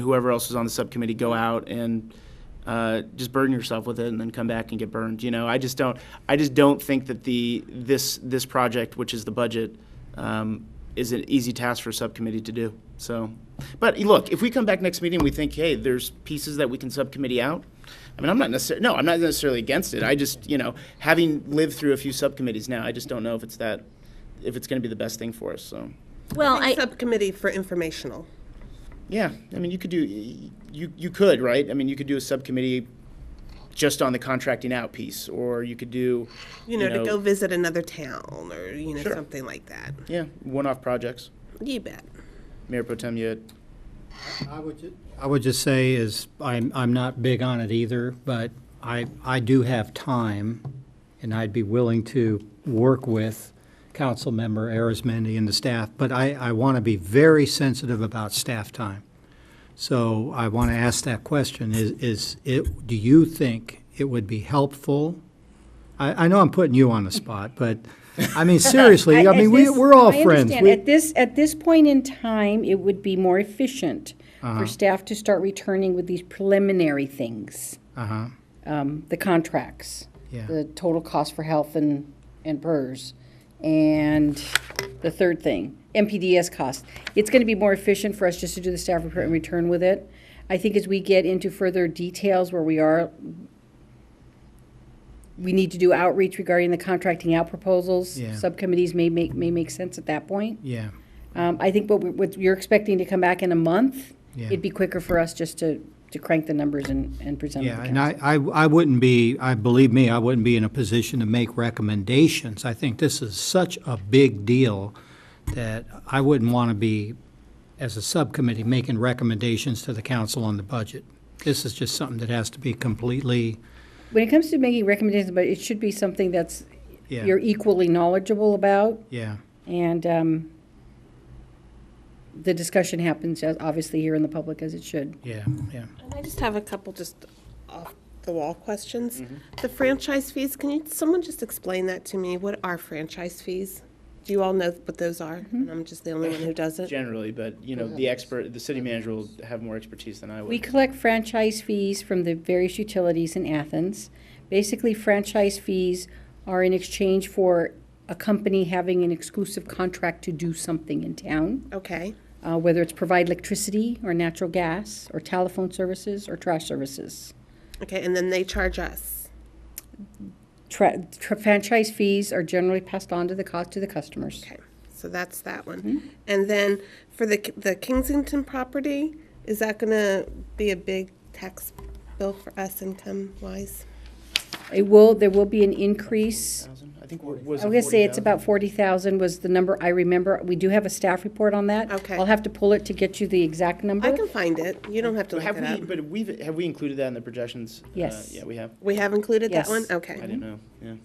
whoever else is on the subcommittee go out and uh, just burden yourself with it and then come back and get burned. You know, I just don't, I just don't think that the, this, this project, which is the budget, um, is an easy task for a subcommittee to do. So, but eh, look, if we come back next meeting, we think, hey, there's pieces that we can subcommittee out. I mean, I'm not necessarily, no, I'm not necessarily against it. I just, you know, having lived through a few subcommittees now, I just don't know if it's that, if it's going to be the best thing for us, so. Well, I think I, Subcommittee for informational. Yeah, I mean, you could do, you, you could, right? I mean, you could do a subcommittee just on the contracting out piece, or you could do, You know, to go visit another town or you know Sure. something like that. yeah, one-off projects. You bet. Mayor Potem, you had- I would, ju- I would just say is, I'm, I'm not big on it either, but I, I do have time, and I'd be willing to work with Councilmember Arizmendi and the staff, but I, I want to be very sensitive about staff time. So I want to ask that question, is, is, it, do you think it would be helpful? I, I know I'm putting you on the spot, but, I mean, seriously, I At mean, we, this- we're all I friends. understand. We- At this, at this point in time, it would be more efficient Uh-huh. for staff to start returning with these preliminary things. Uh-huh. Um, the contracts. Yeah. The total cost for health and, and PERS. And the third thing, MPDS cost. It's gonna be more efficient for us just to do the staff report and return with it. I think as we get into further details where we are we need to do outreach regarding the contracting out proposals. Yeah. Subcommittees may make, may make sense at that point. Yeah, Um, I think what, we- what you're expecting to come back in a month, Yeah. it'd be quicker for us just to, to crank the numbers and, and present them Yeah, to and council. I, I, I wouldn't be, I, believe me, I wouldn't be in a position to make recommendations. I think this is such a big deal that I wouldn't want to be, as a subcommittee, making recommendations to the council on the budget. This is just something that has to be completely, When it comes to making recommendations, but it should be something that's, Yeah. you're equally knowledgeable about. yeah, And, um, the discussion happens as, obviously here in the public as it should. yeah, yeah. And I just have a couple just off the wall questions. The franchise fees. Can you someone just explain that to me? What are franchise fees? Do you all know what those are? And I'm just the only one who doesn't. generally, but, you know, the expert, the city manager will have more expertise than I We would. collect franchise fees from the various utilities in Athens. Basically, franchise fees are in exchange for a company having an exclusive contract to do something in town, Okay. uh, whether it's provide electricity or natural gas or telephone services or trash services. Okay. And then they charge us. Tra- tra- franchise fees are generally passed on to the cost to the customers. Okay. So that's that one. And then for the K- the Kensington property, is that going to be a big tax bill for us income wise? It will, there will be an increase. I think what was. I was gonna say it's about forty thousand was the number I remember. We do have a staff report on that. Okay. I'll have to pull it to get you the exact number. I can find it. You don't have to look Have it we, up. but we've, have we included that in the projections? Uh, Yes. Mm-hmm. Yeah, we have. We have included that Yes. one? I Okay. didn't know, yeah.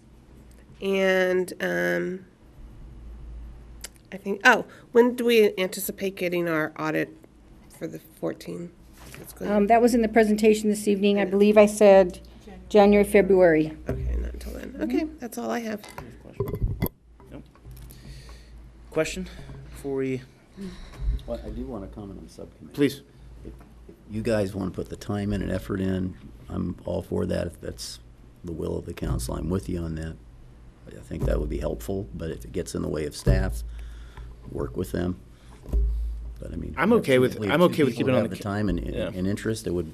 And, um, I think, oh, when do we anticipate getting our audit for the fourteen? That's good. Um, that was in the presentation this evening. I believe I said January, February. Okay, not until then. Okay, mhm. that's all I have. Question? Nope. Question before we, Well, I do want to comment on the subcommittee. please. You guys want to put the time in and effort in. I'm all for that. If that's the will of the council, I'm with you on that. I think that would be helpful, but if it gets in the way of staff, work with them. But I mean. I'm okay with- absolutely, if I'm two okay with people keeping it on have the the ca- time and, Yeah. and interest, it would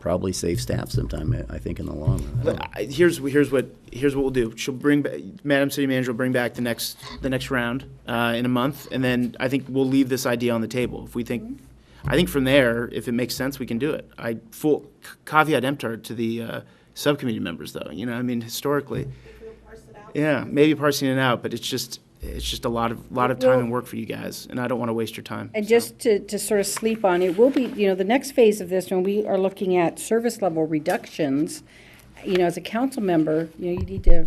probably save staff some time, I- I think, in the long run. I don't- But I- here's, here's what, here's what we'll do. She'll bring, ba- Madam City Manager will bring back the next, the next round uh, in a month, and then I think we'll leave this idea on the table. If we think, I think from there, if it makes sense, we can do it. I full caveat emptor to the uh, subcommittee members, though, you know, I mean, historically. Yeah, maybe parsing it out, but it's just, it's just a lot of, lot of time and work for you guys, and I don't want to waste your time. And so. just to, to sort of sleep on, it will be, you know, the next phase of this, when we are looking at service level reductions, you know, as a council member, you know, you need to,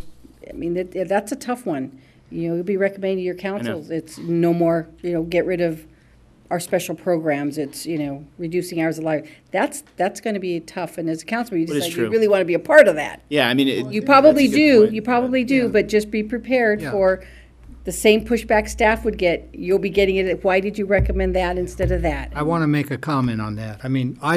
I mean, that, that's a tough one. You know, you'll be recommending to your councils, it's no more, you know, get rid of our special programs, it's, you know, reducing hours of life. That's, that's gonna be tough, and as a council, you But it's decide you true. really wanna be a part of that. Yeah, I mean, it- You that's a probably good do, point, you but- probably do, but just be prepared Yeah. for the same pushback staff would get, you'll be getting it, at, why did you recommend that instead of that? I want to make a comment on that. I mean, I